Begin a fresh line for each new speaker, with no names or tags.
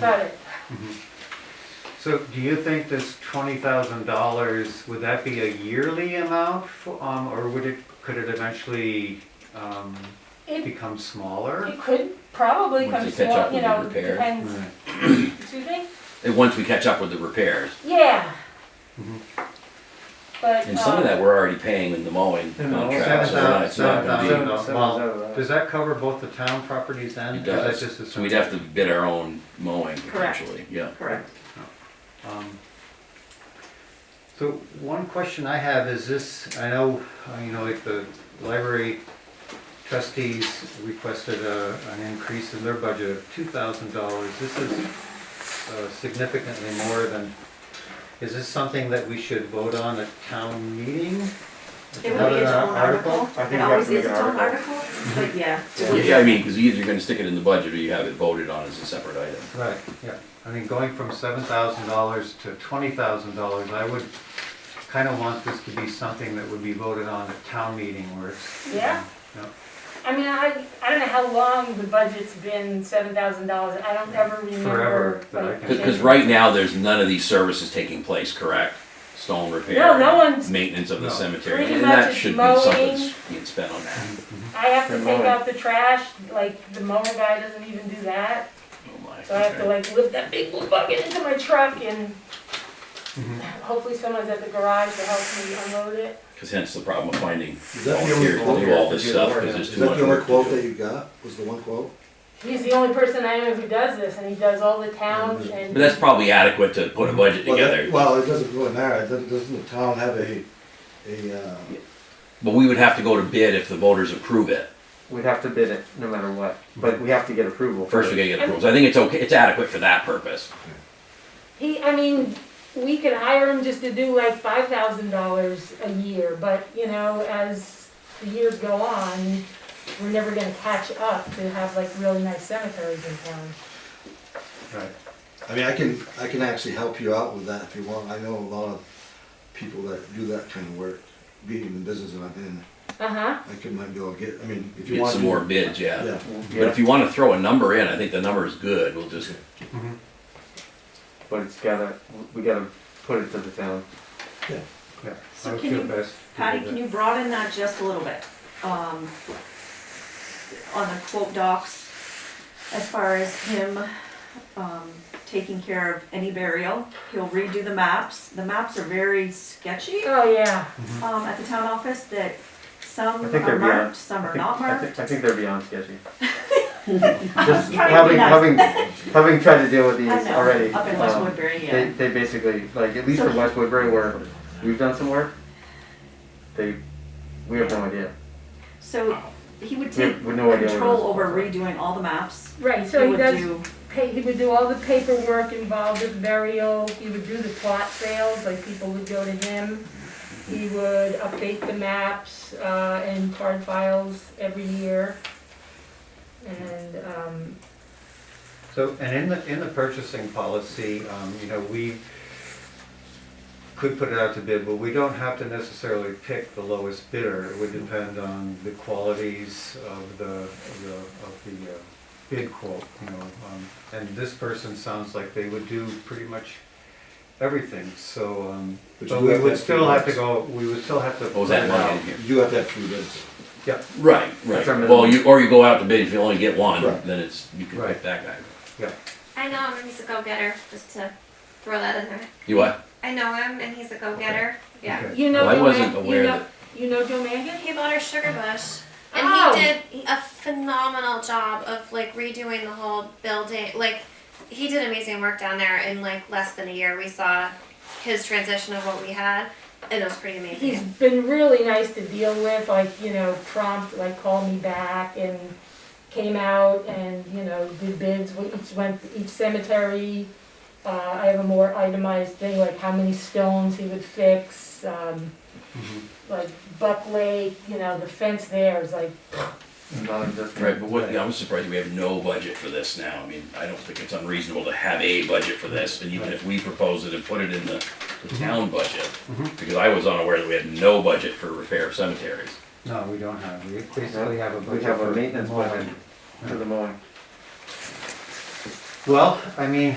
Got it.
So do you think this twenty thousand dollars, would that be a yearly amount, for- um, or would it, could it eventually, um,
It,
become smaller?
it could probably
Once
come
you catch
small,
up
you
with the
know,
repair.
depends,
Right.
Mm-hmm.
excuse me?
And once we catch up with the repairs,
Yeah.
Mhm.
But,
Mm-hmm. and some of
um,
that we're already paying in the mowing
In the mowing.
contract, so we're not- it's not
Seven
gonna
thousand. Does that cover both the town properties
be.
and?
It
or is that
does,
just the
so we'd have to bid our own mowing
Correct.
potentially, yeah.
Correct.
Um, So one question I have is this, I know, uh, you know, like the library trustees requested a, an increase in their budget of two thousand dollars. This is uh, significantly more than, is this something that we should vote on at town meeting?
It would be its
Another
own article.
I think
It
we have
always
to make
is
an
its own article, but yeah.
Yeah, Yeah, I mean, because either you're gonna stick it in the budget or you have it voted on as a separate item.
Right, yeah. I mean, going from seven thousand dollars to twenty thousand dollars, I would kind of want this to be something that would be voted on at town meeting where it's.
Yeah.
Yeah.
I mean, I, I don't know how long the budget's been, seven thousand dollars, I don't ever remember.
Forever, that I
like,
can-
Because right now, there's none of these services taking place, correct? Stone repair.
No, no one's-
Maintenance of the
No.
cemetery,
Pretty
and
much
that
it's
should be something
mowing.
that's being spent on that.
mm-hmm,
I have to
For
take
mowing.
out the trash, like, the mower guy doesn't even do that,
Oh my.
so I have to
okay.
like lift that big blue bucket into my truck and
Mhm.
hopefully someone's at the garage to help me unload it.
Cause hence the problem of finding
Is that the
volunteers
only
to
quote?
do all this
Yeah.
stuff, cause there's
Is
too
that
much
the only
work
quote
to
that
do.
you got, was the one quote?
He's the only person I know who does this, and he does all the towns and.
Mm-hmm. But that's probably adequate to put a budget
Mm-hmm. Well, that-
together,
Well, it doesn't really matter, It doesn't, doesn't the town have a, a, uh,
but we would have to go to bid if the voters approve it.
We'd have to bid it no matter what, but we have to get approval.
First, we gotta get approval, so I think it's okay, it's adequate for that purpose.
He, I mean, we could hire him just to do like five thousand dollars a year, but you know, as the years go on, we're never gonna catch up to have like really nice cemeteries in town.
Right.
I mean, I can, I can actually help you out with that if you want, I know a lot of people that do that kind of work, being in the business that I'm in,
Uh-huh,
I could might be able to get, I mean, if you
Get
want.
some
to-
more bids, yeah.
Yeah,
But if
Yeah,
you wanna throw a number in, I think the number is good, we'll just,
Mhm.
but it's gotta, we gotta put it to the town.
Yeah.
So
I would
can
feel
you-
best to do
Patty,
that.
can you broaden that just a little bit? Um, on the quote docs, as far as him, um, taking care of any burial, he'll redo the maps. The maps are very sketchy,
oh yeah,
um, at the town office that some
I think
are
they're beyond-
marked, some
I
are
think- I
not marked.
think- I think they're beyond sketchy.
trying
Just
to be
having,
nice.
having, having tried to deal with
I
these
know,
already.
Up in
um,
West Woodbury, yeah.
They, they basically, like, at least
So
for
he-
West Woodbury where we've done some work, they, we have no idea.
So he would
We have-
take
we have no idea what it
control
is.
over redoing all the maps.
right, so he
would
does,
do-
pa- he would do all the paperwork involved with burial, he would do the plot sales, like people would go to him. He would update the maps, uh, and card files every year. And, um,
So, and in the, in the purchasing policy, um, you know, we could put it out to bid, but we don't have to necessarily pick the lowest bidder. It would depend on the qualities of the, of the, of the uh, bid quote, you know. um, And this person sounds like they would do pretty much everything, so, um,
But
but
you
we
have
would
that
still have to
bids.
go, we would still have to.
oh, is that
put it
money
out.
in here?
you have to have three bids.
Yeah,
Right, right,
That's our minimum.
well, you, or you go out to bid, if you only get one,
Right.
then it's, you can
Right.
pick that guy.
yeah.
I know him and he's a go-getter, just to throw that in there.
You what?
I know him and he's a go-getter. Yeah.
okay.
You know,
Well, I
Joe
wasn't
Mag-
aware
you know,
that-
you know Joe Mangan?
He bought her sugar bush. And
Oh.
he did a phenomenal job of like redoing the whole building. Like he did amazing work down there in like less than a year. We saw his transition of what we had and it was pretty amazing.
He's been really nice to deal with, like, you know, prompt, like, call me back and came out and, you know, did bids, We each went, to each cemetery. Uh, I have a more itemized thing, like how many stones he would fix, um,
Mhm.
like Buck Lake, you know, the fence there is like,
Not just-
Right, but what, I'm surprised we have no budget for this now, I mean, I don't think it's unreasonable to have a budget for this, and even if we propose it and put it in the,
Mm-hmm.
the town budget,
Mhm.
because I was unaware that we had no budget for repair of cemeteries.
No, we don't have, we basically have a budget
We have
for
a maintenance
mowing.
budget for the mowing.
Well, I mean,